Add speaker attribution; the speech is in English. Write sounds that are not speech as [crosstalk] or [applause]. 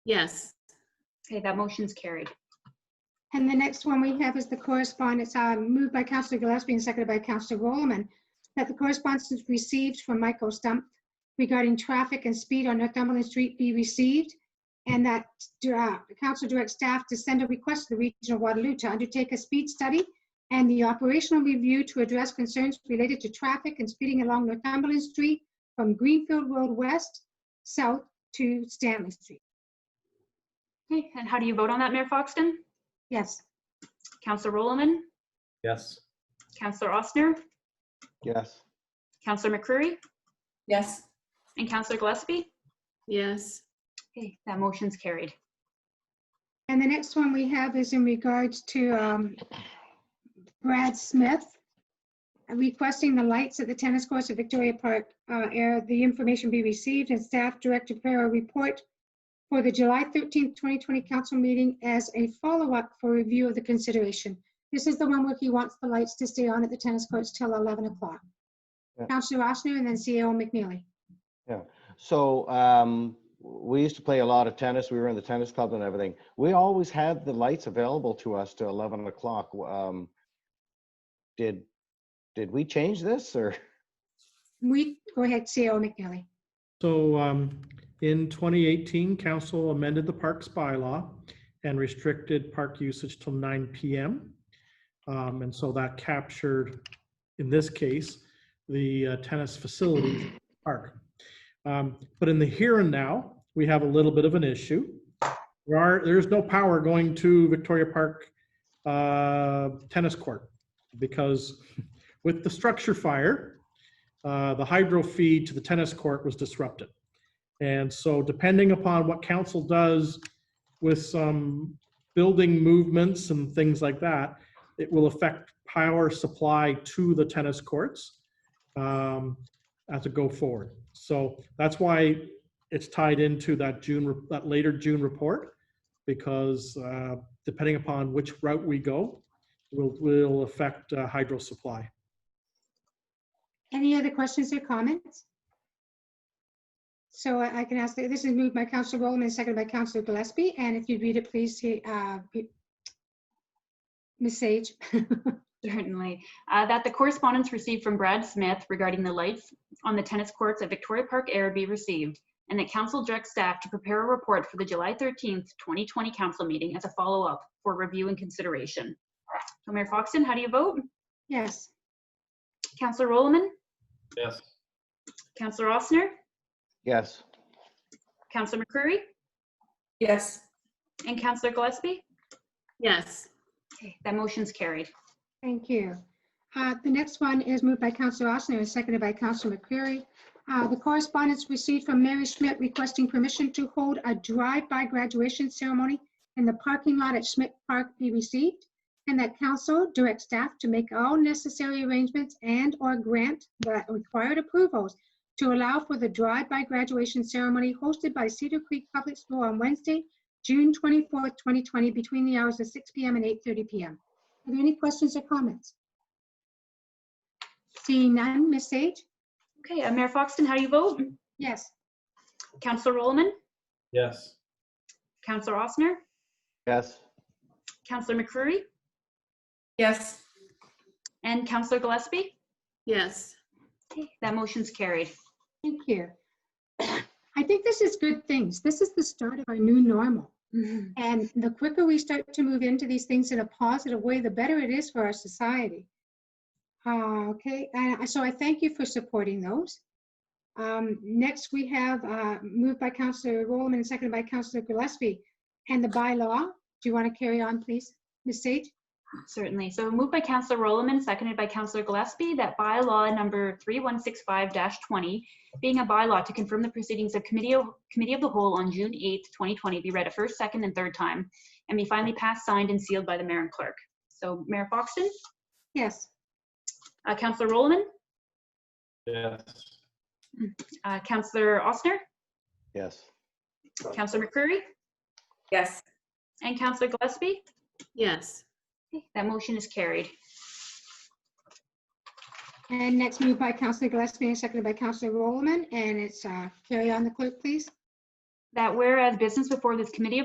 Speaker 1: Yes.
Speaker 2: Okay, that motion's carried.
Speaker 3: And the next one we have is the correspondence, uh, moved by Counselor Gillespie and seconded by Counselor Roman, that the correspondence received from Michael Stump regarding traffic and speed on Northumberland Street be received, and that uh, the council directs staff to send a request to the Region of Waterloo to undertake a speed study and the operational review to address concerns related to traffic and speeding along Northumberland Street from Greenfield Road West, south to Stanley Street.
Speaker 2: Okay, and how do you vote on that, Mayor Foxton?
Speaker 3: Yes.
Speaker 2: Counselor Roman,
Speaker 4: Yes.
Speaker 2: Counselor Ossner,
Speaker 5: yes,
Speaker 2: Counselor McCreary,
Speaker 1: Yes.
Speaker 2: and Counselor Gillespie?
Speaker 1: Yes.
Speaker 2: Okay, that motion's carried. [laughs]
Speaker 3: And the next one we have is in regards to um, Brad Smith requesting the lights at the tennis courts at Victoria Park uh, area, the information be received and staff director prepare a report for the July 13th, 2020 council meeting as a follow-up for review of the consideration. This is the one where he wants the lights to stay on at the tennis courts till 11 o'clock.
Speaker 5: Yeah.
Speaker 3: Counselor Oshner and then CEO McNeely.
Speaker 5: so um, we used to play a lot of tennis. We were in the tennis club and everything. We always had the lights available to us to eleven o'clock. Um, did did we change this or [laughs]
Speaker 3: We, go ahead, CEO McNeely.
Speaker 6: So um, in 2018, council amended the parks bylaw and restricted park usage till 9 PM. Um, And so that captured, in this case, the uh, tennis facilities in the park. Um, But in the here and now, we have a little bit of an issue. There are, there is no power going to Victoria Park uh, Tennis Court because with the structure fire, uh, the hydro feed to the tennis court was disrupted. And so depending upon what council does with some building movements and things like that, it will affect power supply to the tennis courts um, as it go forward. So that's why it's tied into that June, re- that later June report, because uh, depending upon which route we go, will, will affect uh, hydro supply.
Speaker 3: Any other questions or comments? So I I can ask, this is moved by Councilor Rowland and seconded by Councilor Gillespie, and if you read it, please, he- uh, he- Ms. Sage. [laughs]
Speaker 2: Certainly. Uh, That the correspondence received from Brad Smith regarding the lights on the tennis courts at Victoria Park Air be received, and that council direct staff to prepare a report for the July 13th, 2020 council meeting as a follow-up for review and consideration. So Mayor Foxton, how do you vote?
Speaker 3: Yes,
Speaker 2: Counselor Roman,
Speaker 4: Yes.
Speaker 2: Counselor Ossner,
Speaker 5: yes,
Speaker 2: Counselor McCreary,
Speaker 1: Yes.
Speaker 2: and Counselor Gillespie?
Speaker 1: Yes.
Speaker 2: Okay, That motion's carried.
Speaker 3: thank you. Uh, The next one is moved by Councilor Ossner and seconded by Councilor McCreary. Uh, The correspondence received from Mary Schmidt requesting permission to hold a drive-by graduation ceremony in the parking lot at Schmidt Park be received, and that council direct staff to make all necessary arrangements and/or grant the required approvals to allow for the drive-by graduation ceremony hosted by Cedar Creek Public School on Wednesday, June 24th, 2020, between the hours of 6 PM and 8:30 PM. Are there any questions or comments? Seeing none, Ms. Sage?
Speaker 2: Okay, uh, Mayor Foxton, how do you vote?
Speaker 3: Yes.
Speaker 2: Counselor Roman,
Speaker 4: Yes.
Speaker 2: Counselor Ossner,
Speaker 5: yes.
Speaker 2: Counselor McCreary,
Speaker 1: Yes.
Speaker 2: and Counselor Gillespie?
Speaker 1: Yes.
Speaker 2: Okay, That motion's carried. [laughs]
Speaker 3: Thank you. [clears throat] I think this is good things. This is the start of our new normal. And the quicker we start to move into these things in a positive way, the better it is for our society. Uh, Okay, and I- so I thank you for supporting those. Um, Next, we have, uh, moved by Counselor Rowland and seconded by Counselor Gillespie. And the bylaw, do you want to carry on, please? Ms. Sage?
Speaker 2: Certainly. So moved by Councillor Rowland, seconded by Councillor Gillespie, that bylaw number 3165-20, being a bylaw to confirm the proceedings of Committee of Committee of the Whole on June 8th, 2020, be read a first, second, and third time, and be finally passed, signed, and sealed by the mayor and clerk. So Mayor Foxton,
Speaker 3: Yes.
Speaker 2: uh, Councillor Rowland,
Speaker 4: Yes.
Speaker 2: uh, Councillor Ossner,
Speaker 5: Yes.
Speaker 2: Councillor McCreary,
Speaker 1: Yes.
Speaker 2: and Councillor Gillespie.
Speaker 1: Yes.
Speaker 2: Okay, That motion is carried.
Speaker 3: And next moved by Counselor Gillespie and seconded by Counselor Rowland. And it's, uh, carry on the clerk, please.
Speaker 2: That whereas business before this committee of